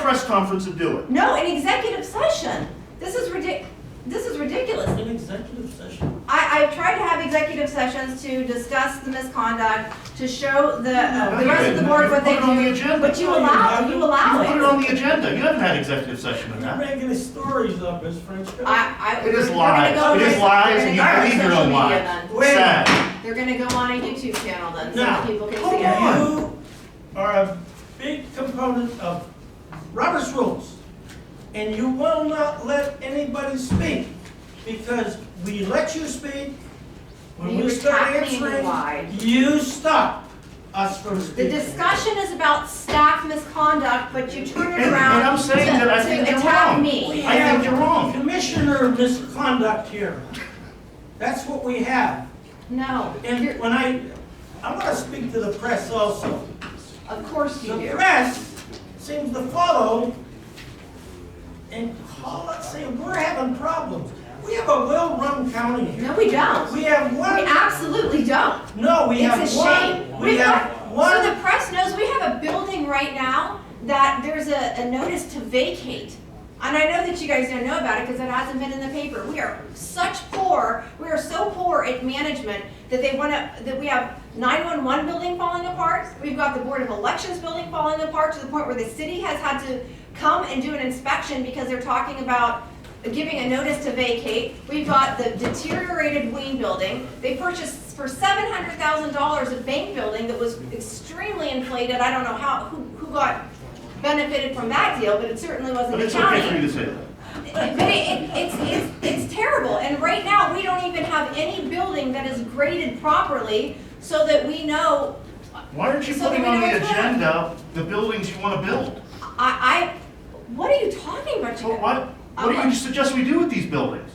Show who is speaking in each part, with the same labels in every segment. Speaker 1: press conference and do it.
Speaker 2: No, an executive session. This is ridic, this is ridiculous.
Speaker 3: An executive session.
Speaker 2: I, I've tried to have executive sessions to discuss the misconduct, to show the,
Speaker 1: No,
Speaker 2: uh, the
Speaker 1: you
Speaker 2: rest of the
Speaker 1: didn't.
Speaker 2: board
Speaker 1: You
Speaker 2: what they
Speaker 1: put it on the
Speaker 2: do,
Speaker 1: agenda.
Speaker 2: but you
Speaker 3: No, you
Speaker 2: allow,
Speaker 3: haven't.
Speaker 2: you
Speaker 3: You
Speaker 2: allow
Speaker 1: You put it on
Speaker 2: it.
Speaker 1: the agenda, you haven't had executive session in
Speaker 3: You're
Speaker 1: that.
Speaker 3: making stories up, Ms. Frenchco.
Speaker 2: I, I.
Speaker 1: It is
Speaker 2: we're gonna
Speaker 1: lies,
Speaker 2: go
Speaker 1: it
Speaker 2: on-
Speaker 1: is lies, and you
Speaker 2: we're gonna go on
Speaker 1: believe your
Speaker 2: social
Speaker 1: own
Speaker 2: media
Speaker 1: lies.
Speaker 2: then.
Speaker 3: Wait.
Speaker 1: Sad.
Speaker 2: They're gonna go on a YouTube channel then, so
Speaker 3: Now,
Speaker 2: that people can see
Speaker 3: hold
Speaker 2: it.
Speaker 1: on.
Speaker 3: You are a big component of Robert's rules, and you will not let anybody speak, because we let you speak. When
Speaker 2: You
Speaker 3: we start
Speaker 2: attack me and lie.
Speaker 3: answering, you stop us from
Speaker 2: The
Speaker 3: speaking.
Speaker 2: discussion is about staff misconduct, but you turn
Speaker 1: And-
Speaker 2: it
Speaker 1: and
Speaker 2: around
Speaker 1: I'm saying
Speaker 2: to-
Speaker 1: that I
Speaker 2: to
Speaker 1: think you're
Speaker 2: attack
Speaker 1: wrong.
Speaker 2: me.
Speaker 3: We
Speaker 1: I think
Speaker 3: have
Speaker 1: you're wrong.
Speaker 3: Commissioner misconduct here. That's what we have.
Speaker 2: No,
Speaker 3: And
Speaker 2: you're-
Speaker 3: when I, I want to speak to the press also.
Speaker 2: of course you
Speaker 3: The
Speaker 2: do.
Speaker 3: press seems to follow and call us saying, we're having problems. We have a well-run county here.
Speaker 2: No, we don't.
Speaker 3: We
Speaker 2: We
Speaker 3: have one,
Speaker 2: absolutely don't.
Speaker 3: no, we have
Speaker 2: It's a
Speaker 3: one,
Speaker 2: shame.
Speaker 3: we
Speaker 2: We've
Speaker 3: have
Speaker 2: got- So
Speaker 3: one.
Speaker 2: the press knows we have a building right now that there's a, a notice to vacate. And I know that you guys don't know about it because it hasn't been in the paper. We are such poor, we are so poor at management that they want to, that we have 911 building falling apart. We've got the Board of Elections building falling apart to the point where the city has had to come and do an inspection because they're talking about giving a notice to vacate. We've got the deteriorated Ween building. They purchased for seven hundred thousand dollars a bank building that was extremely inflated. I don't know how, who, who got benefited from that deal, but it certainly wasn't
Speaker 1: But
Speaker 2: the
Speaker 1: it's okay for you
Speaker 2: county.
Speaker 1: to say that.
Speaker 2: But it, it- it's, it's, it's terrible, and right now, we don't even have any building that is graded properly so that we know,
Speaker 1: Why aren't you
Speaker 2: So
Speaker 1: putting
Speaker 2: then we
Speaker 1: on the
Speaker 2: know it's wrong.
Speaker 1: agenda the buildings you wanna build?
Speaker 2: I, I, what are you talking about,
Speaker 1: So
Speaker 2: Jacob?
Speaker 1: what, what do you suggest we do with these buildings?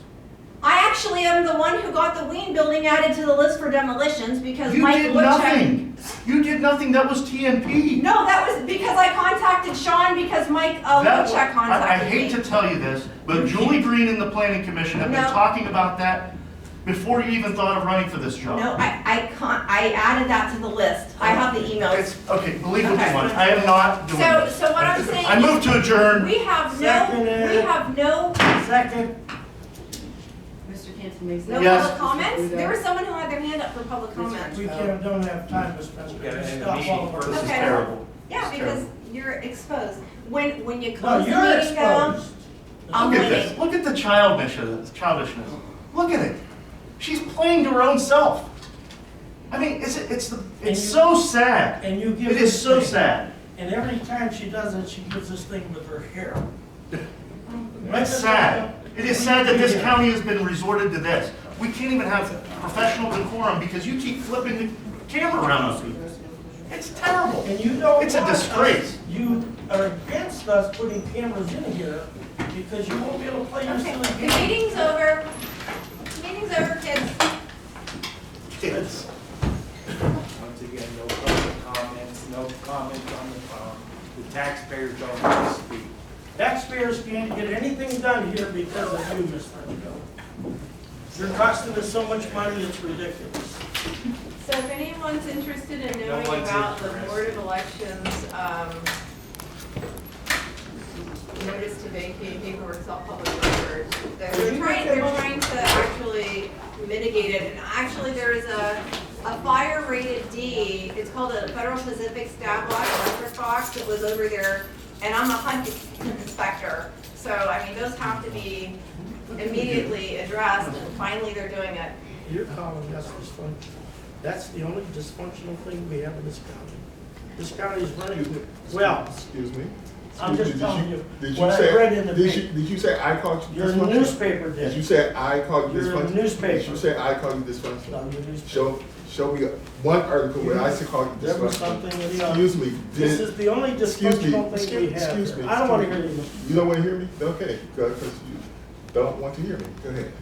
Speaker 2: I actually am the one who got the Ween building added to the list for demolitions because
Speaker 1: You
Speaker 2: Mike
Speaker 1: did
Speaker 2: Woodchuck.
Speaker 1: nothing. You did nothing, that was TNP.
Speaker 2: No, that was because I contacted Sean because Mike uh,
Speaker 1: That- I,
Speaker 2: Woodchuck
Speaker 1: I
Speaker 2: contacted
Speaker 1: hate
Speaker 2: me.
Speaker 1: to tell you this, but Julie Green and the planning commission have been
Speaker 2: No.
Speaker 1: talking about that before you even thought of running for this job.
Speaker 2: No, I, I can't, I added that to the list. I have the
Speaker 1: It's,
Speaker 2: emails.
Speaker 1: okay, believe what
Speaker 2: Okay.
Speaker 1: you want, I am not doing
Speaker 2: So,
Speaker 1: this.
Speaker 2: so what I'm saying.
Speaker 1: I move to adjourn.
Speaker 2: We have no, we
Speaker 3: Seconded.
Speaker 2: have no,
Speaker 3: Second,
Speaker 4: Mr. Cancel Mesa.
Speaker 2: no
Speaker 1: Yes.
Speaker 2: public comments. There was someone who had their hand up for public comments.
Speaker 3: we can't, don't have time, Ms. Frenchco.
Speaker 5: Yeah,
Speaker 3: Just
Speaker 5: and the
Speaker 3: stop all
Speaker 5: meeting
Speaker 3: of our-
Speaker 5: purpose
Speaker 2: Okay.
Speaker 5: is terrible.
Speaker 2: Yeah,
Speaker 5: It's
Speaker 2: because
Speaker 5: terrible.
Speaker 2: you're exposed. When, when you
Speaker 3: No,
Speaker 2: close the
Speaker 3: you're
Speaker 2: meeting down.
Speaker 3: exposed.
Speaker 2: I'm
Speaker 1: Look at
Speaker 2: winning.
Speaker 1: this. Look at the childishness. Childishness. Look at it. She's playing to her own self. I mean, it's it's the it's so sad.
Speaker 3: And you give.
Speaker 1: It is
Speaker 3: this
Speaker 1: so
Speaker 3: thing-
Speaker 1: sad.
Speaker 3: And every time she does it, she gives this thing with her hair.
Speaker 1: It's sad. It is sad that this county has been resorted to this. We can't even have professional decorum because you keep flipping the camera around on people. It's terrible.
Speaker 3: And you don't.
Speaker 1: It's a
Speaker 3: want us-
Speaker 1: disgrace.
Speaker 3: You are against us putting cameras in here because you won't be able to play your
Speaker 2: Okay,
Speaker 3: silly
Speaker 2: the
Speaker 3: game.
Speaker 2: meeting's over. Meeting's over, kids.
Speaker 1: It's
Speaker 5: Once again, no public comments, no comments on the phone. The taxpayers don't want to speak.
Speaker 3: Taxpayers can't get anything done here because of you, Ms. Frenchco. You're costing us so much money, it's ridiculous.
Speaker 2: So if anyone's interested in
Speaker 5: No
Speaker 2: knowing
Speaker 5: one's
Speaker 2: about the
Speaker 5: interested.
Speaker 2: Board of Elections, um, notice to vacate paperwork, all public record, they're they're trying, they're trying to actually mitigate it, and actually there is a, a fire rated D, it's called a Federal Pacific Stab Block Electric Box that was over there, and I'm a hunt inspector, so I mean, those have to be immediately addressed, and finally they're doing it.
Speaker 3: You're calling us dysfunctional. That's the only dysfunctional thing we have in this county. This county is running well.
Speaker 6: Excuse me?
Speaker 3: I'm
Speaker 6: Excuse
Speaker 3: just
Speaker 6: me, did
Speaker 3: telling you
Speaker 6: did
Speaker 3: what I
Speaker 6: say-
Speaker 3: read in the
Speaker 6: did
Speaker 3: paper.
Speaker 6: you- Did you say I called you
Speaker 3: Your
Speaker 6: dysfunctional?
Speaker 3: newspaper
Speaker 6: Did you
Speaker 3: did.
Speaker 6: say I called you
Speaker 3: Your
Speaker 6: dysfunctional? Did
Speaker 3: newspaper.
Speaker 6: you say I called you
Speaker 3: No,
Speaker 6: dysfunctional?
Speaker 3: your newspaper.
Speaker 6: Show, show me one article where I said called you
Speaker 3: There was
Speaker 6: dysfunctional.
Speaker 3: something in the other.
Speaker 6: Excuse me,
Speaker 3: This
Speaker 6: did,
Speaker 3: is the only
Speaker 6: excuse me,
Speaker 3: dysfunctional thing we
Speaker 6: excuse,
Speaker 3: have
Speaker 6: excuse me.
Speaker 3: here. I don't wanna
Speaker 6: excuse
Speaker 3: hear
Speaker 6: me.
Speaker 3: you.
Speaker 6: You don't wanna hear me? Okay, because you don't want to hear me, go ahead.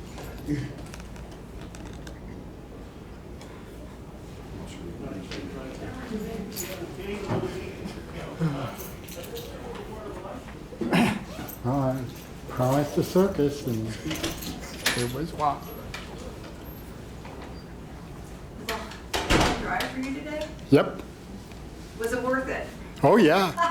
Speaker 7: I promised a circus and it was wild.
Speaker 2: Was a long drive for you today?
Speaker 7: Yep.
Speaker 2: Was it worth it?
Speaker 7: Oh, yeah.